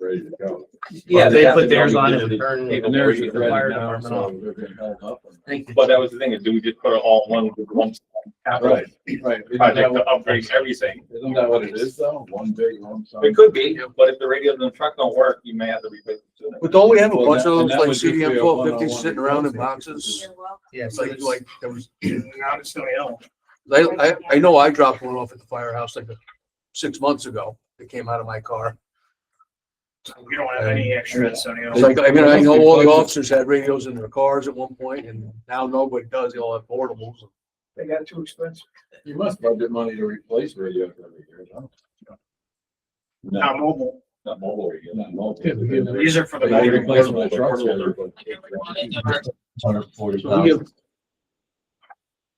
ready to go. Yeah, they Well, put theirs on that's- and Turn they the put theirs with the red fire now, department so off. they're getting held up. But that was the thing, is do we just put it all in one, one capital Right, right. Isn't that project to what- upgrade everything? Isn't that what it is though? One big lump sum? It could be, but if the radios in the truck don't work, you may have to replace it sooner. But don't we have a Well, bunch that- of and those that like would just be a CDM twelve fifty one-on-one sitting around in negotiation. boxes? Yeah, It's so like, it's like, there was, now it's going out. I, I, I know I dropped one off at the firehouse like six months ago. It came out of my car. We don't have any extra at Sunny It's like, I mean, I know all the officers had radios in their cars at one point and now nobody does. They all have portables. They got too expensive. You must budget money to replace radios every year, huh? Not mobile. Not mobile radio. Not mobile. Yeah, we give- These are for the. They They replace replace my them with the trucks. portable. Hundred forty So we thousand. have-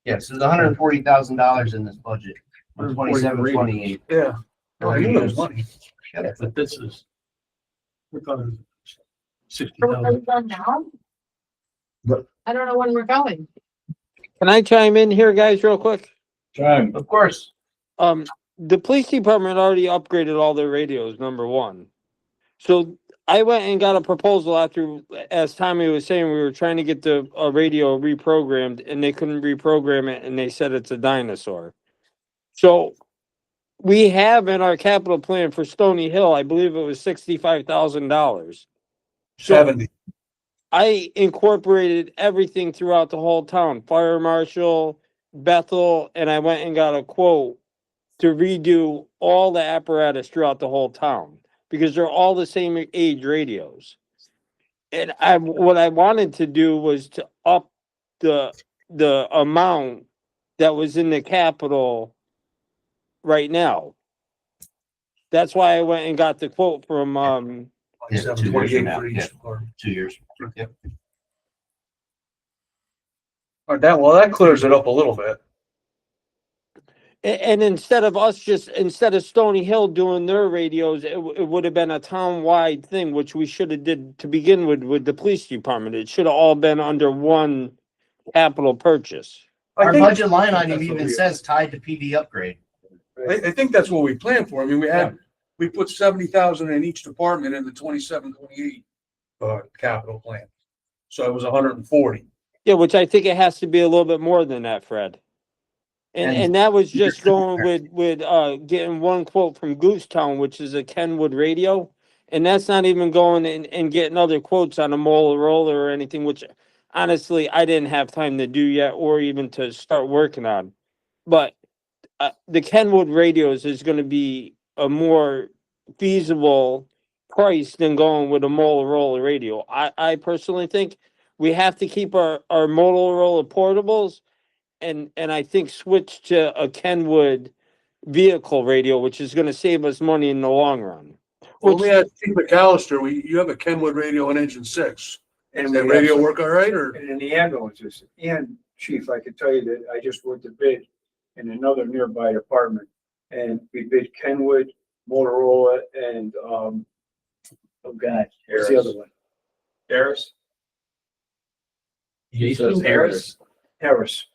Yeah, so there's hundred and forty thousand dollars in this budget, twenty-seven, twenty-eight. Oh, Yeah. I knew it was money. Yeah. But this is. We're talking sixty Are we thousand. done now? I don't know when we're going. Can I chime in here, guys, real quick? Time. Of course. Um, the police department already upgraded all their radios, number one. So I went and got a proposal after, as Tommy was saying, we were trying to get the, uh radio reprogrammed and they couldn't reprogram it and they said it's a dinosaur. So we have in our capital plan for Stony Hill, I believe it was sixty-five thousand dollars. Seventy. I incorporated everything throughout the whole town, fire marshal, Bethel, and I went and got a quote to redo all the apparatus throughout the whole town because they're all the same age radios. And I, what I wanted to do was to up the, the amount that was in the capital right now. That's why I went and got the quote from, um, Yeah, Seven two years from twenty-eight now, for yeah. each car. Two years. Yep. All right, that, well, that clears it up a little bit. A- And instead of us just, instead of Stony Hill doing their radios, it, w- it would have been a town-wide thing, which we should have did to begin with, with the police department. It should have all been under one capital purchase. I Our think, budget line item That's what even we- says tied to PD upgrade. I, I think that's what we planned for. I mean, we had, we put seventy thousand in each department in the twenty-seven, twenty-eight uh, capital plan. So it was hundred and forty. Yeah, which I think it has to be a little bit more than that, Fred. And, And- and that was just going with, with, uh, getting one quote from Goose Town, which is a Kenwood radio. And that's not even going and, and getting other quotes on a Motorola or anything, which honestly, I didn't have time to do yet or even to start working on. But, uh, the Kenwood radios is gonna be a more feasible price than going with a Motorola radio. I, I personally think we have to keep our, our Motorola portables and, and I think switch to a Kenwood vehicle radio, which is gonna save us money in the long run. Well, we had Steve McAllister, we, you have a Kenwood radio on engine six. Does that radio work all right or? And in the ambulances, and chief, I can tell you that I just went to bid in another nearby department. And we bid Kenwood, Motorola, and, um, oh God, what's the other one? Harris? He says Harris? Harris.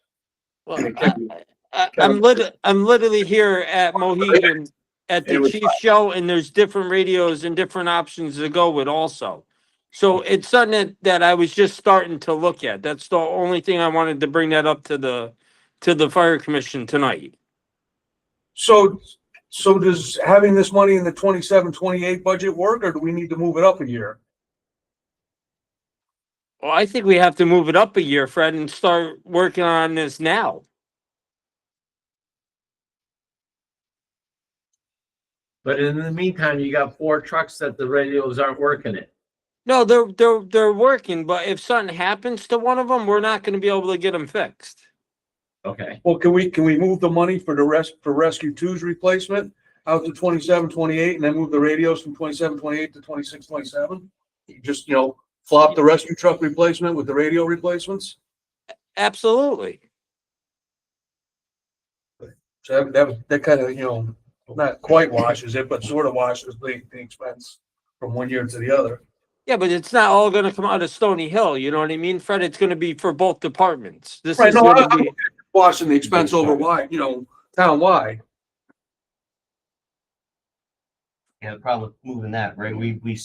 Well, And it I- can be- I, Uh, I'm lit, I'm literally here at Mohegan at It the was chief show and there's different radios and different options to go with also. So it's something that- that I was just starting to look at. That's the only thing I wanted to bring that up to the, to the fire commission tonight. So, so does having this money in the twenty-seven, twenty-eight budget work or do we need to move it up a year? Well, I think we have to move it up a year, Fred, and start working on this now. But in the meantime, you got four trucks that the radios aren't working it. No, they're, they're, they're working, but if something happens to one of them, we're not gonna be able to get them fixed. Okay. Well, can we, can we move the money for the rest, for rescue two's replacement out to twenty-seven, twenty-eight and then move the radios from twenty-seven, twenty-eight to twenty-six, twenty-seven? Just, you know, flop the rescue truck replacement with the radio replacements? Absolutely. So that, that, was- that kind of, you know, not quite washes it, but sort of washes the, the expense from one year to the other. Yeah, but it's not all gonna come out of Stony Hill, you know what I mean, Fred? It's gonna be for both departments. This Right, is no, I- gonna I'm be, washing the expense over wide, you know, town wide. Yeah, the problem with moving that, right? We, we